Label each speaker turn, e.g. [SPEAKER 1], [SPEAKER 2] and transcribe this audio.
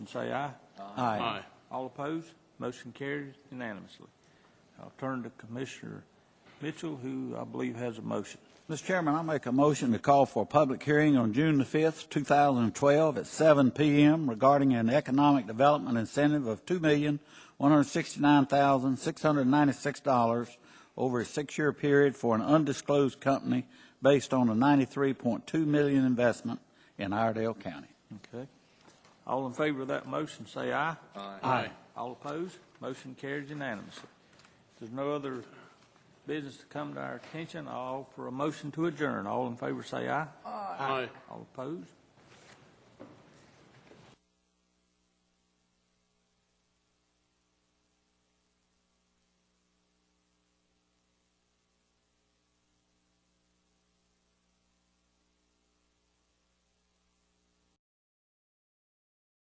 [SPEAKER 1] and say aye.
[SPEAKER 2] Aye.
[SPEAKER 1] All opposed? Motion carries unanimously. I'll turn to Commissioner Mitchell, who I believe has a motion.
[SPEAKER 3] Mr. Chairman, I make a motion to call for a public hearing on June the 5th, 2012, at 7 p.m. regarding an economic development incentive of $2,169,696 over a six-year period for an undisclosed company based on a $93.2 million investment in Iredale County.
[SPEAKER 1] Okay. All in favor of that motion, say aye.
[SPEAKER 2] Aye.
[SPEAKER 1] All opposed? Motion carries unanimously. If there's no other business to come to our attention, I'll offer a motion to adjourn. All in favor, say aye.
[SPEAKER 2] Aye.
[SPEAKER 1] All opposed?